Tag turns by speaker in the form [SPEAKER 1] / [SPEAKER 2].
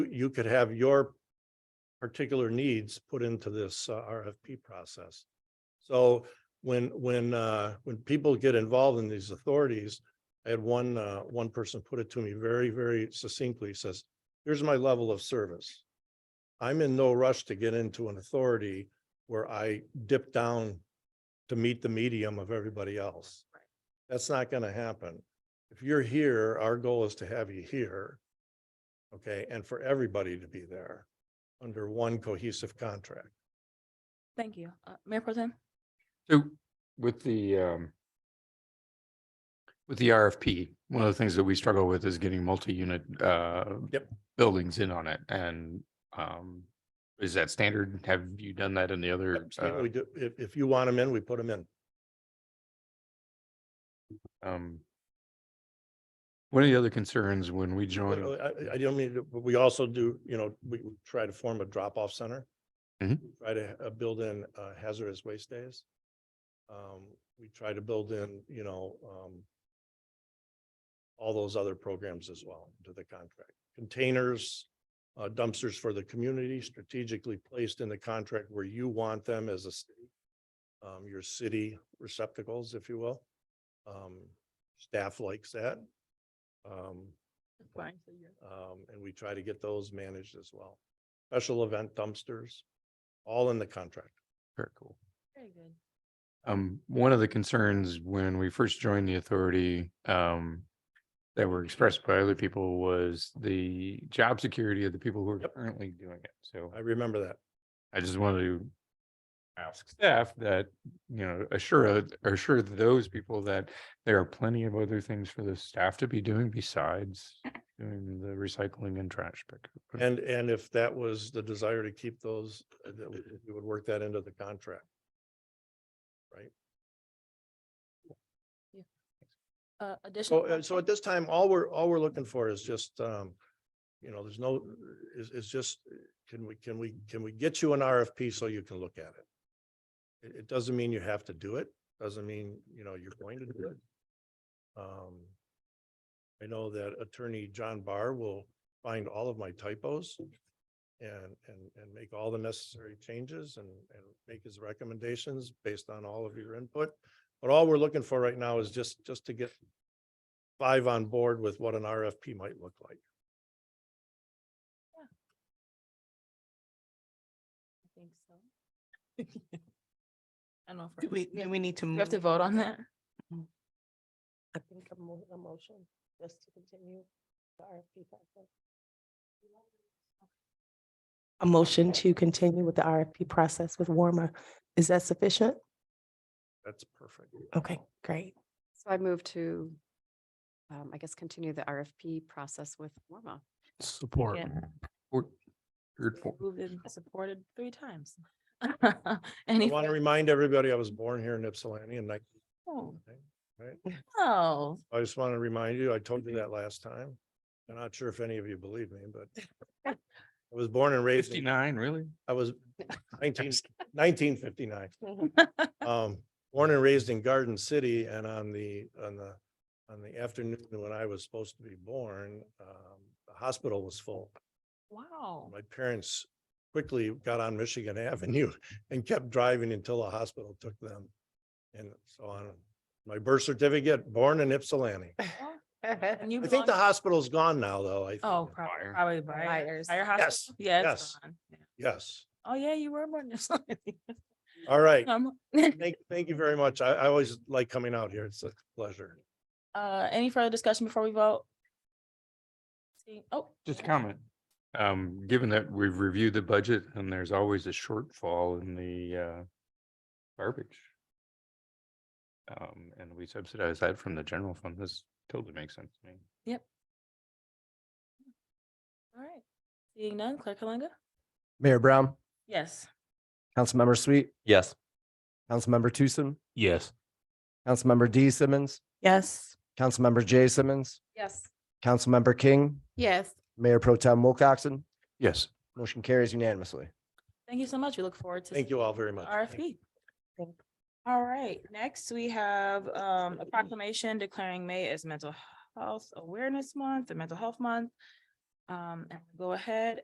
[SPEAKER 1] you could have your particular needs put into this uh, RFP process. So when, when, uh, when people get involved in these authorities, I had one, uh, one person put it to me very, very succinctly, He says, here's my level of service. I'm in no rush to get into an authority where I dip down to meet the medium of everybody else. That's not gonna happen. If you're here, our goal is to have you here. Okay, and for everybody to be there under one cohesive contract.
[SPEAKER 2] Thank you. Uh, Mayor Pro Tem?
[SPEAKER 3] So with the um. With the RFP, one of the things that we struggle with is getting multi-unit uh.
[SPEAKER 1] Yep.
[SPEAKER 3] Buildings in on it and um, is that standard? Have you done that in the other?
[SPEAKER 1] Absolutely, We do, if, if you want them in, we put them in.
[SPEAKER 3] uh, Um. One of the other concerns when we joined.
[SPEAKER 1] But, uh, I, I don't mean, to- but we also do, you know, we try to form a drop-off center.
[SPEAKER 3] Mhm.
[SPEAKER 1] Try to uh, build in uh, hazardous waste days. Um, we try to build in, you know, um, all those other programs as well into the contract. Containers, uh, dumpsters for the community strategically placed in the contract where you want them as a city. Um, your city receptacles, if you will. Um, staff likes that. Um, um, and we try to get those managed as well. Special event dumpsters, all in the contract.
[SPEAKER 3] Very cool.
[SPEAKER 2] Very good.
[SPEAKER 3] Um, one of the concerns when we first joined the authority, um. That were expressed by other people was the job security of the people who are
[SPEAKER 1] Yep.
[SPEAKER 3] currently doing it. So
[SPEAKER 1] I remember that.
[SPEAKER 3] I just wanted to ask staff that, you know, assure, uh, assure those people that there are plenty of other things for the staff to be doing besides doing the recycling and trash pickup.
[SPEAKER 1] And, and if that was the desire to keep those, uh, that we we would work that into the contract.
[SPEAKER 2] Uh,
[SPEAKER 1] So,
[SPEAKER 2] additional.
[SPEAKER 1] uh, so at
[SPEAKER 2] questions?
[SPEAKER 1] this time, all we're, all we're looking for is just, um, you know, there's no, is, is just, can we, can we, can we get you an RFP so you can look at it? It, it doesn't mean you have to do it, doesn't mean, you know, you're going to do it. Um, I know that attorney John Barr will find all of my typos and, and, and make all the necessary changes and, and make his recommendations based on all of your input. But all we're looking for right now is just, just to get five on board with what an RFP might look like.
[SPEAKER 2] I think so. I don't know.
[SPEAKER 4] Do
[SPEAKER 2] if
[SPEAKER 4] we, do we need to?
[SPEAKER 2] We have to
[SPEAKER 4] move?
[SPEAKER 2] vote on that?
[SPEAKER 5] I think a mo- a motion just to continue the RFP process. A motion to continue with the RFP process with Warmer. Is that sufficient?
[SPEAKER 1] That's perfect.
[SPEAKER 5] Okay, great.
[SPEAKER 6] So I move to, um, I guess, continue the RFP process with Warma.
[SPEAKER 1] Support.
[SPEAKER 3] Or- or for-
[SPEAKER 2] Moved and supported three times.
[SPEAKER 1] I
[SPEAKER 2] Any?
[SPEAKER 1] want to
[SPEAKER 2] further-
[SPEAKER 1] remind everybody I was born here in Ypsilanti and I,
[SPEAKER 2] Oh.
[SPEAKER 1] Right.
[SPEAKER 2] Oh,
[SPEAKER 1] I just want to remind you, I told you that last time. I'm not sure if any of you believe me, but I was born and raised, in-
[SPEAKER 3] Fifty-nine, really?
[SPEAKER 1] I was nineteen, nineteen fifty-nine. Um, born and raised in Garden City and on the, on the, on the afternoon when I was supposed to be born, um, the hospital was full.
[SPEAKER 2] wow.
[SPEAKER 1] My parents quickly got on Michigan Avenue and kept driving until a hospital took them. And so on, my birth certificate, born in Ypsilanti.
[SPEAKER 2] And you
[SPEAKER 1] I think the
[SPEAKER 2] belong-
[SPEAKER 1] hospital's gone now, though. I.
[SPEAKER 2] Oh,
[SPEAKER 1] think.
[SPEAKER 2] probably,
[SPEAKER 3] Fire.
[SPEAKER 2] probably Briar.
[SPEAKER 5] Briars.
[SPEAKER 2] Briar
[SPEAKER 1] Yes,
[SPEAKER 2] Hospital? Yeah, it's
[SPEAKER 1] yes.
[SPEAKER 2] gone. Yeah.
[SPEAKER 1] Yes.
[SPEAKER 2] Oh, yeah, you were born.
[SPEAKER 1] All right.
[SPEAKER 2] Um,
[SPEAKER 1] Thank, thank you very much. I, I always like coming out here. It's a pleasure.
[SPEAKER 2] Uh, any further discussion before we vote? See, oh.
[SPEAKER 3] Just a comment. Um, given that we've reviewed the budget and there's always a shortfall in the uh garbage. Um, and we subsidize that from the general fund. This totally makes sense to me.
[SPEAKER 2] All right. Seeing none, Clerk Kalanga?
[SPEAKER 7] Mayor Brown,
[SPEAKER 2] Yes.
[SPEAKER 7] Councilmember Sweet,
[SPEAKER 8] Yes.
[SPEAKER 7] Councilmember Tucson,
[SPEAKER 8] Yes.
[SPEAKER 7] Councilmember D Simmons,
[SPEAKER 5] Yes.
[SPEAKER 7] Councilmember J Simmons,
[SPEAKER 6] Yes.
[SPEAKER 7] Councilmember King,
[SPEAKER 6] Yes.
[SPEAKER 7] Mayor Pro Tem Wilcoxen.
[SPEAKER 3] Yes.
[SPEAKER 7] Motion carries unanimously.
[SPEAKER 2] Thank you so much. We look forward to.
[SPEAKER 1] Thank you
[SPEAKER 2] seeing
[SPEAKER 1] all very much.
[SPEAKER 2] RFP.
[SPEAKER 5] Thank you.
[SPEAKER 2] All right, next we have um a proclamation declaring May as Mental Health Awareness Month, the Mental Health Month. Um, and go ahead